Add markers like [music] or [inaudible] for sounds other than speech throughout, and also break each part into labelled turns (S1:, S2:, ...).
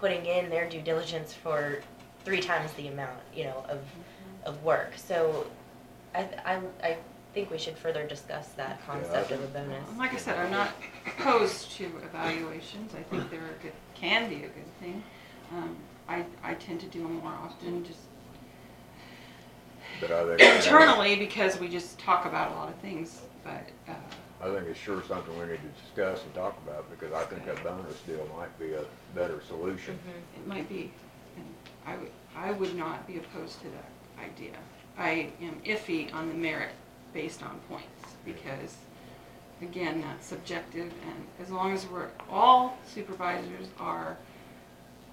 S1: putting in their due diligence for three times the amount, you know, of, of work. So I, th- I, I think we should further discuss that
S2: I
S1: concept of a
S2: think-
S1: bonus.
S3: Like I said, I'm not opposed to evaluations, I think they're a good, can be a good thing. Um, I, I tend to do them more often, just
S2: But I think.
S3: internally, because we just talk about a lot of things, but, uh,
S2: I think it's sure something we need to discuss and talk about, because I think a bonus deal might be a better solution.
S3: it might be, and I would, I would not be opposed to that idea. I am iffy on the merit based on points, because, again, that's subjective, and as long as we're, all supervisors are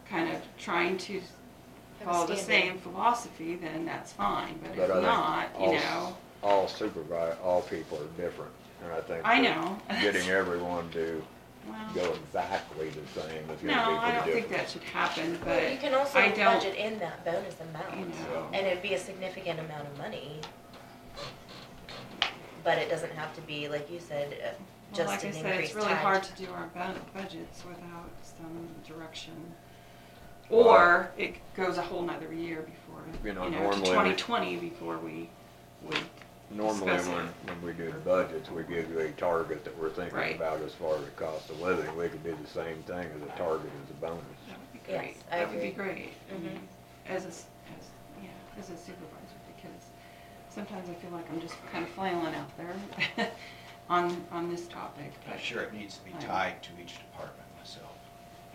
S3: kind of trying to
S1: Have a
S3: follow the
S1: standard.
S3: same philosophy, then that's fine, but if
S2: But I think
S3: Mm-hmm. not,
S2: all
S3: you
S2: s-
S3: know,
S2: All supervi, all people are different, and I think. that
S3: I know. [laughs]
S2: Getting everyone to
S3: well,
S2: go exactly the same is gonna be pretty
S3: no, I don't think
S2: difficult.
S3: that should happen, but
S1: But you can also
S3: I don't-
S1: budget in that bonus
S3: you
S1: amount,
S3: know.
S1: and it'd be a significant amount of money. But it doesn't have to be, like you said, uh,
S3: Well,
S1: just
S3: like I
S1: an
S3: said, it's
S1: increased
S3: really
S1: time.
S3: hard to do our bu- budgets without some direction.
S2: Well,
S3: Or it goes a whole nother year before,
S2: You
S3: you
S2: know,
S3: know, to
S2: normally we-
S3: twenty twenty before we would,
S2: Normally,
S3: discuss
S2: when,
S3: it.
S2: when we do the budgets, we give you a target that we're thinking
S3: Right.
S2: about as far as the cost of living. We could do the same thing as a target as a bonus.
S3: that would be
S1: Yes,
S3: great.
S1: I
S3: That would be
S1: agree.
S3: great. I
S1: Mhm.
S3: mean, As a, s- as, yeah, as a supervisor, because sometimes I feel like I'm just kind of flailing out there [laughs] on, on this topic.
S4: I'm
S3: but-
S4: sure it needs to be
S3: Right.
S4: tied to each department myself.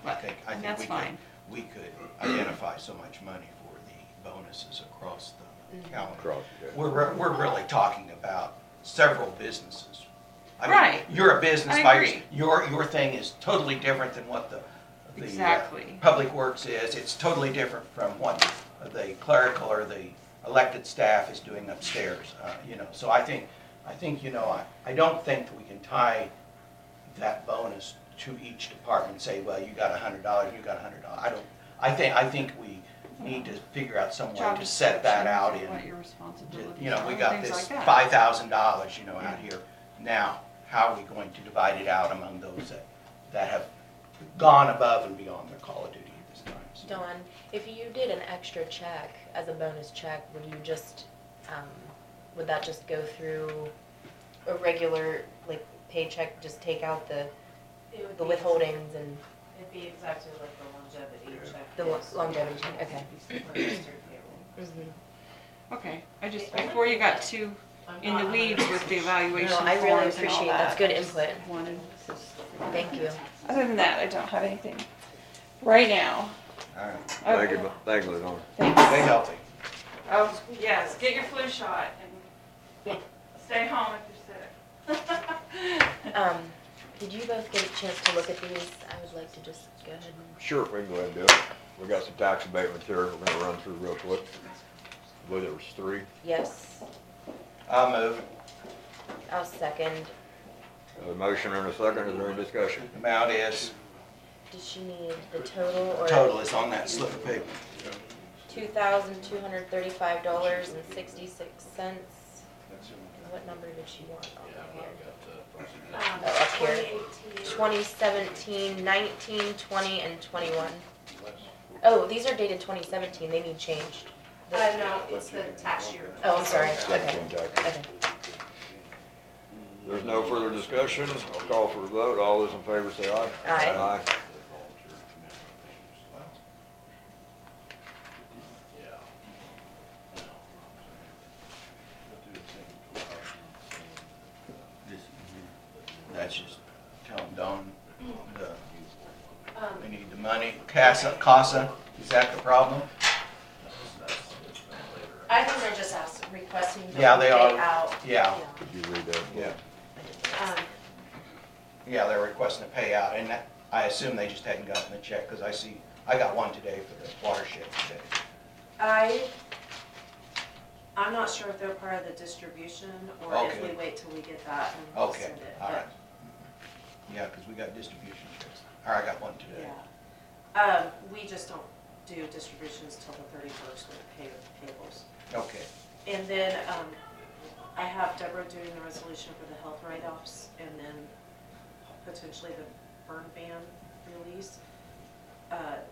S4: I
S3: Right.
S4: think, I
S3: And
S4: think
S3: that's
S4: we could,
S3: fine.
S4: we could identify so much money for the bonuses across
S3: Mm.
S4: the calendar.
S2: Across the-
S4: We're, re- we're really talking about several businesses. I mean,
S3: Right.
S4: You're a business
S3: I
S4: by,
S3: agree.
S4: your, your thing is totally different than what the, the. uh,
S3: Exactly.
S4: Public Works is, it's totally different from what the clerical or the elected staff is doing upstairs, uh, you know. So I think, I think, you know, I, I don't think that we can tie that bonus to each department and say, well, you got a hundred dollars, you got a hundred dollars. I don't, I think, I think we need to figure out some way
S3: Job
S4: to set that
S3: descriptions
S4: out
S3: and What
S4: in,
S3: your responsibilities
S4: you know, we
S3: are,
S4: got
S3: Oh, things
S4: this
S3: like that.
S4: five thousand dollars, you know, out
S3: Yeah.
S4: here. Now, how are we going to divide it out among those that, that have gone above and beyond their call of duty at this time? So-
S1: Dawn, if you did an extra check as a bonus check, would you just, um, would that just go through a regular, like, paycheck, just take out the,
S5: It would
S1: the
S5: be-
S1: withholdings and
S5: It'd be exactly like the longevity check.
S1: the lo- longevity check, okay?
S5: For registered payroll.
S3: Mm-hmm. Okay, I just, before you got too
S5: I'm
S3: in the
S5: not
S3: weeds with the evaluation
S1: No,
S3: forms
S1: I
S3: and all that.
S1: really appreciate, that's good input,
S3: Wanted-
S1: thank you.
S3: Other than that, I don't have anything right now.
S4: All right,
S2: Thank you, thank you, Lorna.
S4: stay healthy.
S3: Oh, yes, get your flu shot and stay home if you're sick. [laughs]
S1: Um, did you both get a chance to look at these? I would like to just go ahead and,
S2: Sure, we can go ahead and do it. We got some tax abatements here we're gonna run through real quick. Whether it was three,
S1: yes,
S4: I'll move.
S1: I'll second.
S2: a Uh, motion and a second, is there any discussion?
S4: Amount is,
S1: Does she need the total or?
S4: total is on that slip of paper.
S1: Two thousand two hundred thirty-five dollars and sixty-six cents. What number did she want on here?
S5: Um,
S1: Oh, up here.
S5: 2018.
S1: Twenty seventeen, nineteen, twenty, and twenty-one. Oh, these are dated twenty seventeen, they need changed.
S5: Uh, no, it's the tax year.
S1: Oh, I'm sorry, okay,
S2: Seventeen tax.
S1: okay.
S2: There's no further discussion, I'll call for a vote, all those in favor say aye.
S1: Aye.
S4: This- That's just, tell them, Don, the,
S5: Um,
S4: we need the money, CASA, CASA, is that the problem?
S5: I think they're just asking, requesting. to
S4: Yeah, they
S5: pay
S4: are.
S5: out,
S4: Yeah.
S5: you know,
S2: Could you read that?
S4: Yeah,
S5: Um,
S4: yeah, they're requesting a payout, and that- I assume they just hadn't gotten the check, because I see, I got one today for the watershed today.
S5: I, I'm not sure if they're part of the distribution or if
S4: Okay.
S5: we wait till we get that and we'll
S4: Okay,
S5: send it.
S4: all
S5: but-
S4: right. Yeah, because we got distribution checks. All right, I got one today.
S5: Yeah. Um, we just don't do distributions till the thirty-first with pay, payables.
S4: Okay,
S5: And then, um, I have Deborah doing the resolution for the health write-offs and then potentially the burn ban release. Uh,